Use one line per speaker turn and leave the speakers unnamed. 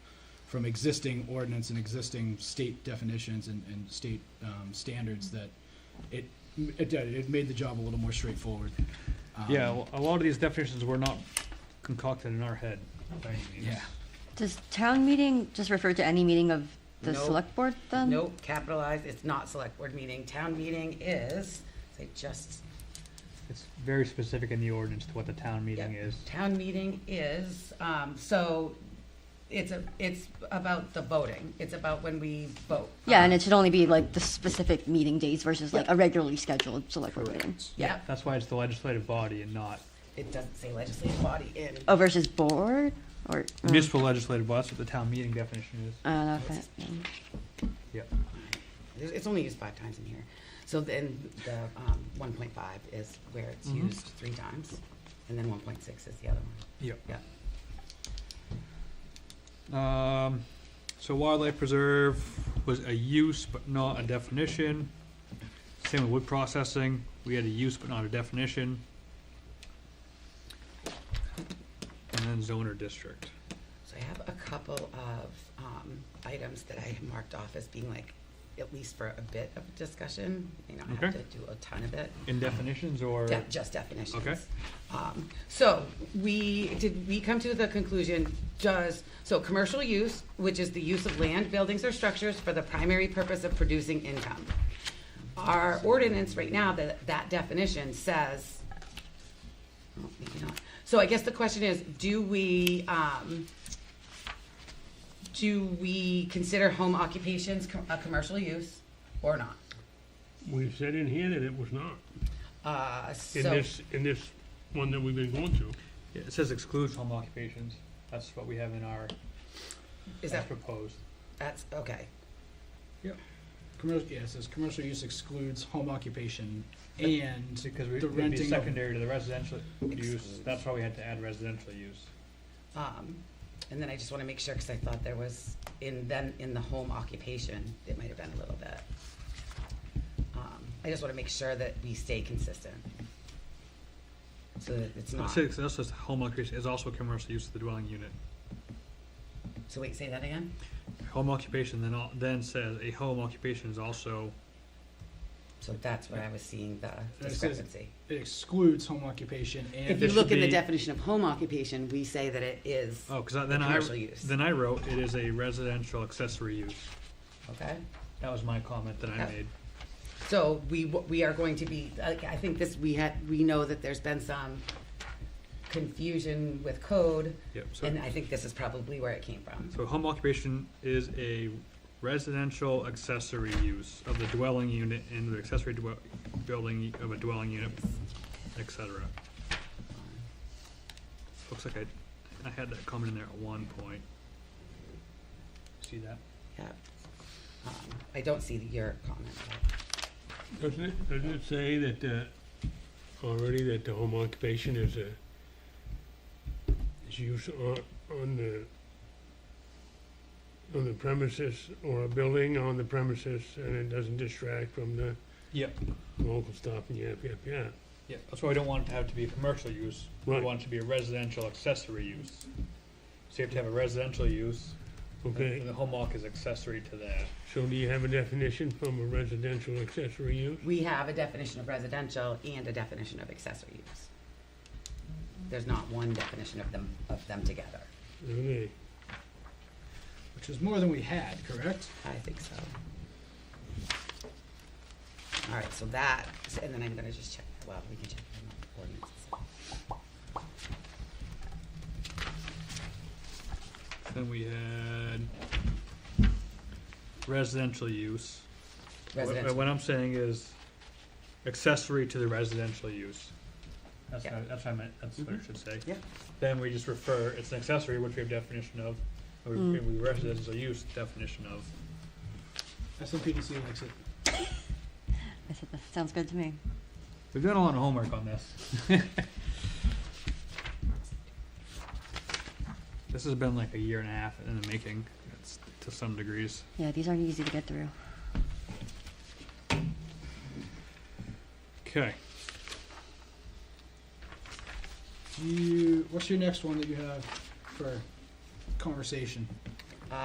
from existing ordinance and existing state definitions and, and state, um, standards that it, it did, it made the job a little more straightforward. Um,
Yeah, well, a lot of these definitions were not concocted in our head. by any means.
Yeah.
Does town meeting just refer to any meeting of the
Nope.
select board then?
Nope, capitalized, it's not select board meeting, town meeting is, say just,
It's very specific in the ordinance to what the town meeting
Yeah.
is.
town meeting is, um, so it's a, it's about the voting, it's about when we vote. Um,
Yeah, and it should only be like the specific meeting days versus like a regularly scheduled select board meeting.
Yeah,
That's why it's the legislative body and not
it doesn't say legislative body in,
Oh, versus board or? oh,
municipal legislative body, that's what the town meeting definition is.
Uh, okay. mm.
Yep.
it's it's only used five times in here. So then the, um, one point five is where it's
Mm-hmm.
Mhm.
used three times, and then one point six is the other one.
Yep.
Yeah.
Um, so wildlife preserve was a use but not a definition. Same with wood processing, we had a use but not a definition. And then zoner district.
So I have a couple of um, items that I have marked off as being like, at least for a bit of discussion. You don't have
Okay.
to do a ton of it.
In definitions or?
Yeah, just definitions.
Okay.
Um, So we, did we come to the conclusion, does, so commercial use, which is the use of land, buildings, or structures for the primary purpose of producing income. Our ordinance right now, that, that definition says, oh, maybe not. So I guess the question is, do we, um, do we consider home occupations co- a commercial use or not?
We've said in here that it was not,
Uh,
in
so,
this, in this one that we've been going through.
Yeah, It says excludes home occupations, that's what we have in our,
is
as
that,
proposed.
that's, okay.
Commercial, yeah, it says commercial use excludes home occupation and
Because we,
The
it'd be
renting of-
secondary to the residential use,
Excludes.
that's why we had to add residential use.
Um, and then I just want to make sure, because I thought there was, in then, in the home occupation, it might have been a little bit. Um, I just want to make sure that we stay consistent. So that it's not,
Six, that's just home occupation, is also commercial use of the dwelling unit.
so wait, say that again?
Home occupation then, al- then says a home occupation is also,
So that's where I was seeing the
it says-
discrepancy.
it excludes home occupation and.
If you
there
look
should
in the
be-
definition of home occupation, we say that it is,
oh, cause I- then I,
Commercial use.
then I wrote, it is a residential accessory use.
okay?
That was my comment that I
Yeah.
made.
So we, w- we are going to be, I I think this, we had, we know that there's been some confusion with code,
Yep, so,
and I think this is probably where it came from.
so home occupation is a residential accessory use of the dwelling unit and the accessory dwell, building of a dwelling unit, et cetera. Looks like I, I had that comment in there at one point. See that?
Yeah. Um, I don't see your comment.
Doesn't it, doesn't it say that, uh, already that the home occupation is a, is used on, on the, on the premises or a building on the premises and it doesn't distract from the
Yep.
local stuff and yap, yap, yap.
Yeah, that's why we don't want it to have to be a commercial use. We
Right.
want it to be a residential accessory use. So you have to have a residential use, and
Okay,
the home walk is accessory to that.
so do you have a definition from a residential accessory use?
We have a definition of residential and a definition of accessory use. There's not one definition of them, of them together.
Okay,
Which is more than we had, correct?
I think so. All right, so that, and then I'm gonna just check, well, we can check the ordinances.
Then we had residential use. Wha-
Residential,
What I'm saying is accessory to the residential use. That's
Yeah. Mm-hmm.
what, that's what I meant, that's what I should say.
Yeah.
Then we just refer, it's an accessory, which we have definition of,
Mm.
and we, and we residential use definition of.
SMPDC likes it.
I said, that sounds good to me.
We've done a lot of homework on this. this has been like a year and a half in the making, it's to some degrees.
Yeah, these aren't easy to get through.
Okay.
Do you, what's your next one that you have for conversation?